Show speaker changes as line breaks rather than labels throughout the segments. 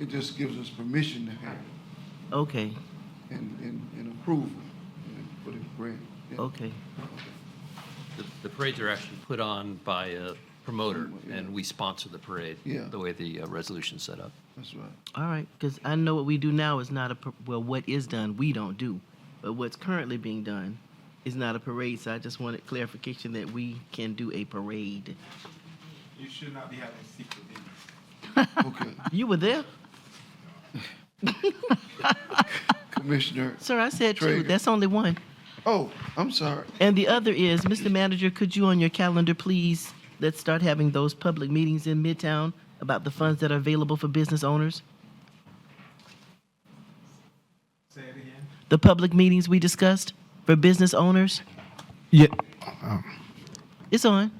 It just gives us permission to have it
Okay,
and, and, and approval and for the grant. Yeah.
okay.
The, the parades are actually put on by a promoter, and we sponsor the parade.
Yeah.
The way the uh, resolution's set up.
That's right.
All right, because I know what we do now is not a, par- well, what is done, we don't do. But what's currently being done is not a parade, so I just wanted clarification that we can do a parade.
You should not be having secret meetings.
Okay.
You were there?
Commissioner,
Sir, I said two,
Trigger.
that's only one.
oh, I'm sorry.
And the other is, Mr. Manager, could you on your calendar, please, let's start having those public meetings in Midtown about the funds that are available for business owners?
Say it again.
The public meetings we discussed for business owners?
Yeah,
It's on.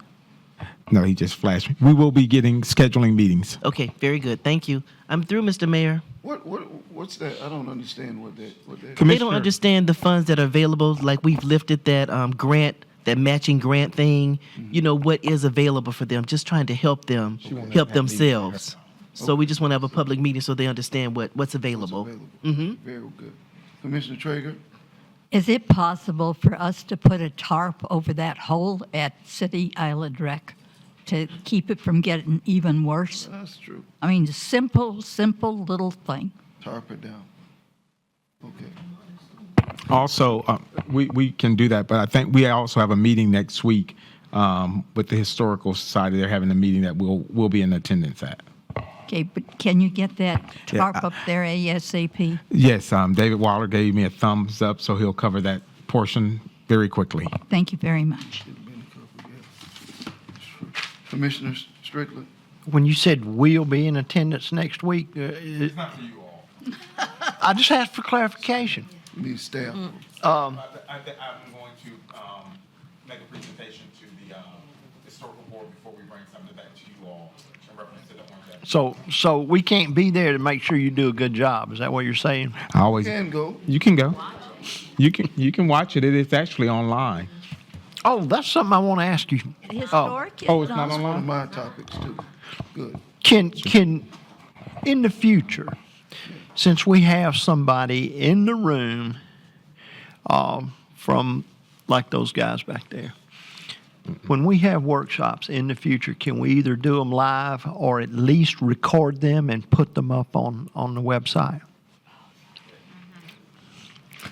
no, he just flashed me. We will be getting scheduling meetings.
Okay, very good, thank you. I'm through, Mr. Mayor.
What, what, what's that? I don't understand what that, what that.
They
Commissioner,
don't understand the funds that are available, like we've lifted that um, grant, that matching grant thing,
Mm-hmm.
you know, what is available for them, just trying to help them,
won't
help
have that meeting.
themselves. So we just want to have a public meeting so they understand what, what's available.
Mm-hmm. Very good. Commissioner Traeger?
Is it possible for us to put a tarp over that hole at City Island Rec to keep it from getting even worse?
That's true.
I mean, a simple, simple little thing.
Tarp it down. Okay.
also, uh, we, we can do that, but I think we also have a meeting next week um, with the Historical Society. They're having a meeting that we'll, we'll be in attendance at.
Okay, but can you get that
Yeah,
tarp
I-
up there ASAP?
Yes, um, David Waller gave me a thumbs up, so he'll cover that portion very quickly.
Thank you very much.
Commissioner Strickland?
When you said we'll be in attendance next week, uh,
It's not for you all.
I just asked for clarification.
You need staff.
I, th- I, th- I'm going to, um, make a presentation to the, um, historical board before we bring something back to you all in reference to the orange act.
So, so we can't be there to make sure you do a good job. Is that what you're saying?
I always
Can go.
You can go. You can you can watch it. It is actually online.
Oh, that's something I want to ask you. Oh,
Historic is
Oh, it's not
That's
online.
one of my topics too. Good.
Can, can, in the future, since we have somebody in the room, um, from, like those guys back there, when we have workshops in the future, can we either do them live or at least record them and put them up on, on the website?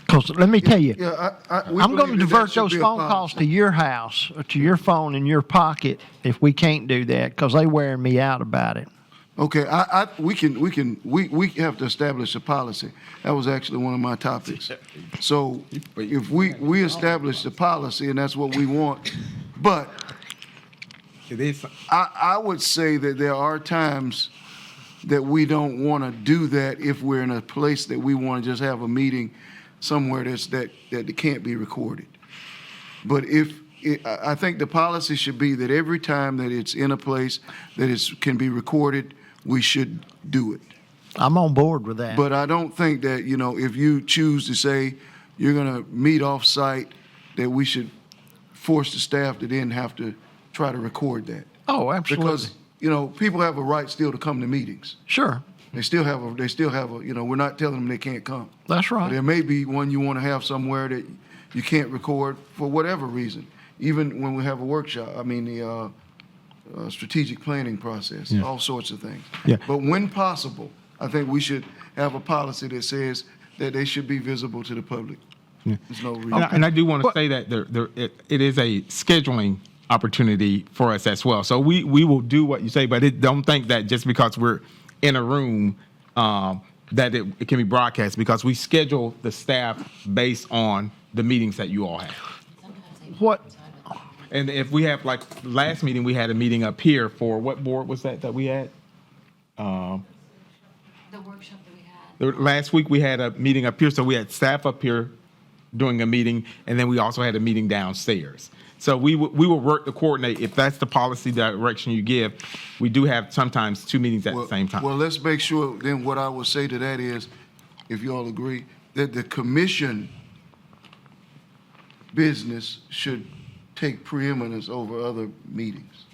Because let me tell you.
Mm-hmm. Yeah, I, I. we
I'm going to
believe that
divert
should
those
be a
phone
policy.
calls to your house, or to your phone in your pocket if we can't do that, because they wearing me out about it.
Okay, I, I, we can, we can, we, we have to establish a policy. That was actually one of my topics. So if we, we establish the policy and that's what we want, but
It is.
I, I would say that there are times that we don't want to do that if we're in a place that we want to just have a meeting somewhere that's, that, that can't be recorded. But if, I, I think the policy should be that every time that it's in a place that it's, can be recorded, we should do it.
I'm on board with that.
But I don't think that, you know, if you choose to say you're gonna meet off-site, that we should force the staff to then have to try to record that.
oh, absolutely.
Because, you know, people have a right still to come to meetings.
sure,
They still have a, they still have a, you know, we're not telling them they can't come.
that's right.
There may be one you wanna have somewhere that you can't record for whatever reason. Even when we have a workshop, I mean, the, uh, uh, strategic planning process, all sorts of things.
Yeah.
But when possible, I think we should have a policy that says that they should be visible to the public. There's no reason.
And, I, and I do want to
But-
say that there, there it, it is a scheduling opportunity for us as well. So we we will do what you say, but it, don't think that just because we're in a room um, that it, it can be broadcast because we schedule the staff based on the meetings that you all have.
what?
And if we have like last meeting, we had a meeting up here for what board was that that we had?
the workshop that we had.
The- Last week, we had a meeting up here, so we had staff up here doing a meeting, and then we also had a meeting downstairs. So we, w- we will work to coordinate, if that's the policy direction you give, we do have sometimes two meetings at the
Well-
same time.
Well, let's make sure, then what I would say to that is, if you all agree, that the commission business should take preeminence over other meetings,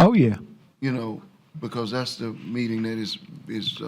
Oh yeah.
you know, because that's the meeting that is, is